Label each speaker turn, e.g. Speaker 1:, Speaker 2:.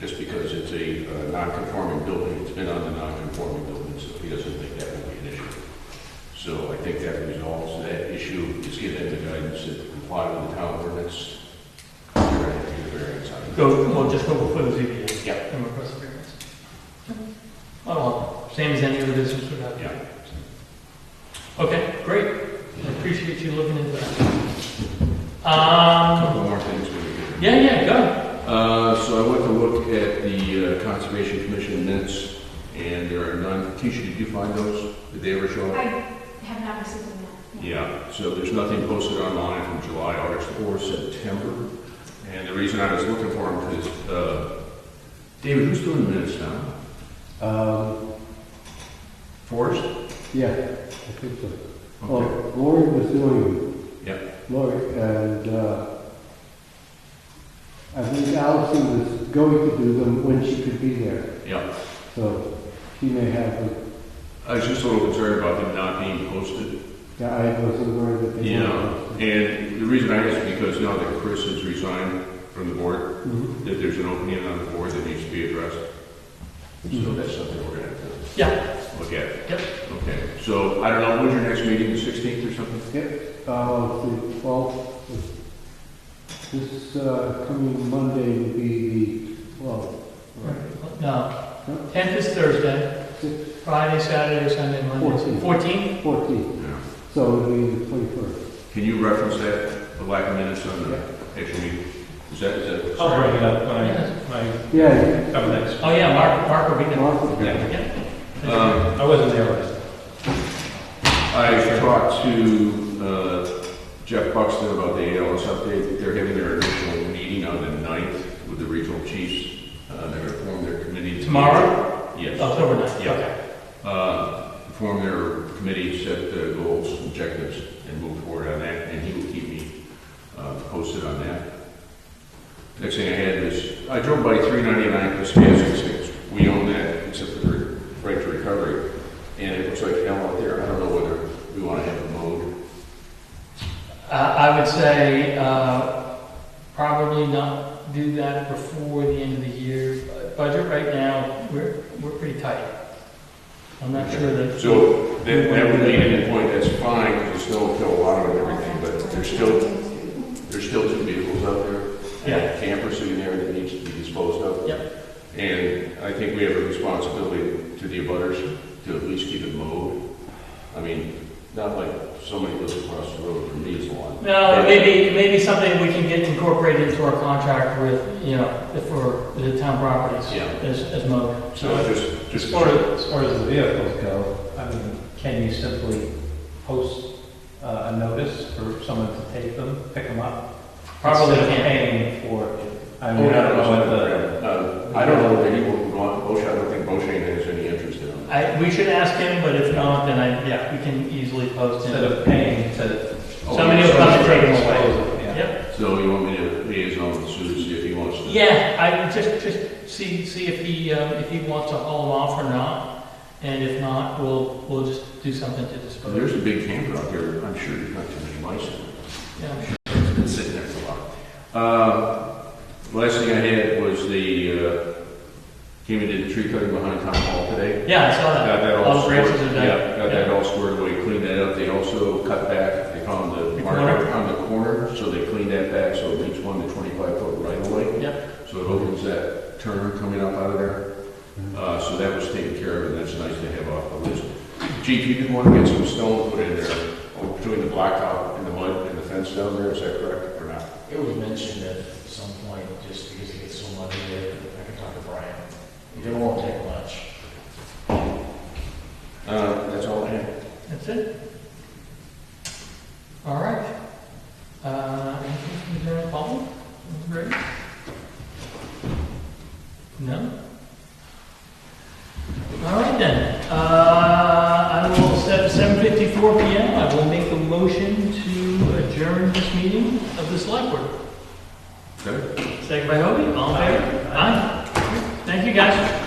Speaker 1: just because it's a uh, non-conforming building, it's been on the non-conforming building, so he doesn't think that will be an issue. So I think that resolves that issue, just give them the guidance that comply with the town ordinance. You're gonna have to do the variance on it.
Speaker 2: Go, well, just go before the ZBA.
Speaker 1: Yeah.
Speaker 2: And request a variance. Well, same as any other business would have.
Speaker 1: Yeah.
Speaker 2: Okay, great. I appreciate you looking into that. Um,
Speaker 1: Couple more things we can do.
Speaker 2: yeah, yeah, go.
Speaker 1: Uh, so I went to look at the uh, Conservation Commission minutes, and there are none. Keisha, did you find those? Did they ever show
Speaker 3: I
Speaker 1: up?
Speaker 3: have not received them yet.
Speaker 1: Yeah, so there's nothing posted online from July, August, or September. And the reason I was looking for them is, uh, David, who's doing the minutes now?
Speaker 4: Um,
Speaker 1: Forrest?
Speaker 4: yeah, I think so.
Speaker 2: Oh.
Speaker 1: Okay.
Speaker 4: Well, Lori was doing
Speaker 1: Yep,
Speaker 4: it, Lori, and, uh, I think Allison was going to do them when she could be there,
Speaker 1: yep.
Speaker 4: so she may have, them.
Speaker 1: I was just a little concerned about them not being posted.
Speaker 4: yeah, I wasn't worried that they.
Speaker 1: Yeah, and the reason I ask is because now that Chris has resigned from the board,
Speaker 4: Mhm.
Speaker 1: that there's an opening on the board that needs to be addressed. So
Speaker 4: Mhm.
Speaker 1: that's something we're gonna have
Speaker 2: Mm-hmm. Yeah,
Speaker 1: to look at.
Speaker 2: Yep.
Speaker 1: Okay, so I don't know, when's your next meeting, the sixteenth or something?
Speaker 4: Yep, uh, the twelfth, this, uh, coming Monday would be the, well,
Speaker 2: no. Tenth is Thursday, Friday, Saturday, Sunday, Monday.
Speaker 4: Fourteen.
Speaker 2: Fourteen?
Speaker 4: fourteenth,
Speaker 1: Yeah.
Speaker 4: so it would be the twenty-first.
Speaker 1: Can you reference that, the lack of minutes on the actual meeting? Is that, is that?
Speaker 5: I'll bring it up when I,
Speaker 2: Yes.
Speaker 5: when I
Speaker 4: Yeah,
Speaker 5: come next.
Speaker 2: Oh, yeah, Mark, Mark will be there.
Speaker 4: Mark would be
Speaker 5: Yeah.
Speaker 2: Yeah.
Speaker 1: Um,
Speaker 5: I wasn't there last time.
Speaker 1: I talked to, uh, Jeff Buxton about the ALS update. They're having their initial meeting on the ninth with the regional chiefs. Uh, they're gonna form their committee.
Speaker 2: Tomorrow,
Speaker 5: Oh,
Speaker 1: Yes.
Speaker 2: October ninth.
Speaker 1: Yeah. uh, form their committee, set the goals, objectives, and move forward on that, and he will keep me uh, posted on that. Next thing I had is, I drove by 399 Piscataquis, Six. we own that, except for the right to recovery, and it looks like hell out there, I don't know whether we want to have a mode.
Speaker 2: Uh, I would say, uh, probably not do that before the end of the year. Budget right now, we're, we're pretty tight. I'm not sure that.
Speaker 1: So that that would be an end point, that's fine, there's still a lot of it and everything, but there's still, there's still two vehicles out there, and a camper sitting there that needs to be disposed of.
Speaker 2: Yep,
Speaker 1: And I think we have a responsibility to the abutters to at least keep it mowed. I mean, not like somebody lives across the road from me is one.
Speaker 2: no, maybe, maybe something we can get incorporated into our contract with, you know, for the town properties
Speaker 1: Yeah.
Speaker 2: as, as mode.
Speaker 1: So just,
Speaker 5: As
Speaker 1: just,
Speaker 5: far as, as far as the vehicles go, I mean, can you simply post uh, a notice for someone to take them, pick them up?
Speaker 2: Probably
Speaker 5: Instead of
Speaker 2: can't.
Speaker 5: Paying for, I
Speaker 1: Oh,
Speaker 5: mean, I
Speaker 1: yeah,
Speaker 5: don't know what the,
Speaker 1: uh, I don't know if anyone would want, Bosch, I don't think Bosch has any interest in them.
Speaker 2: I, we should ask him, but if not, then I, yeah, we can easily post
Speaker 5: instead
Speaker 2: it.
Speaker 5: of paying to.
Speaker 2: Somebody will come and take them away.
Speaker 5: Dispose of, yeah.
Speaker 2: Yep.
Speaker 1: So you want me to liaison with Sue to see if he wants to?
Speaker 2: Yeah, I would just, just see, see if he, um, if he wants to haul them off or not, and if not, we'll, we'll just do something to
Speaker 1: Well,
Speaker 2: dispose.
Speaker 1: There's a big camper out there, I'm sure there's not too many mice in it.
Speaker 2: Yeah, I'm sure.
Speaker 1: It's been sitting there for a while. Uh, Last thing I had was the, uh, came and did the tree cutting behind town hall today.
Speaker 2: Yeah, I saw
Speaker 1: Got
Speaker 2: that.
Speaker 1: that
Speaker 2: All
Speaker 1: all
Speaker 2: Oh, the
Speaker 1: squared,
Speaker 2: branches are done.
Speaker 1: yeah, got that all squared away, cleaned that up. They also cut back, they found the
Speaker 2: The
Speaker 1: marker on the corner, so they cleaned that back, so it leaves one to twenty-five foot right away.
Speaker 2: Yep,
Speaker 1: So it opens that turn coming up out of there.
Speaker 6: Mm-hmm.
Speaker 1: Uh, so that was taken care of, and that's nice to have off the list. Chief, you did want to get some stone put in there oh, between the blacktop and the mud and the fence down there, is that correct or not?
Speaker 6: It was mentioned at some point, just because it gets so muddy there, I can talk to Brian. It won't take much.
Speaker 1: Uh, that's all I have.
Speaker 2: that's it. All right. Uh, anything from the general public? Great. No? All right then, uh, I will, set seven fifty-four PM, I will make a motion to adjourn this meeting of the select board.
Speaker 1: Okay?
Speaker 2: Second by Hobie, all in favor? Aye. Thank you, guys.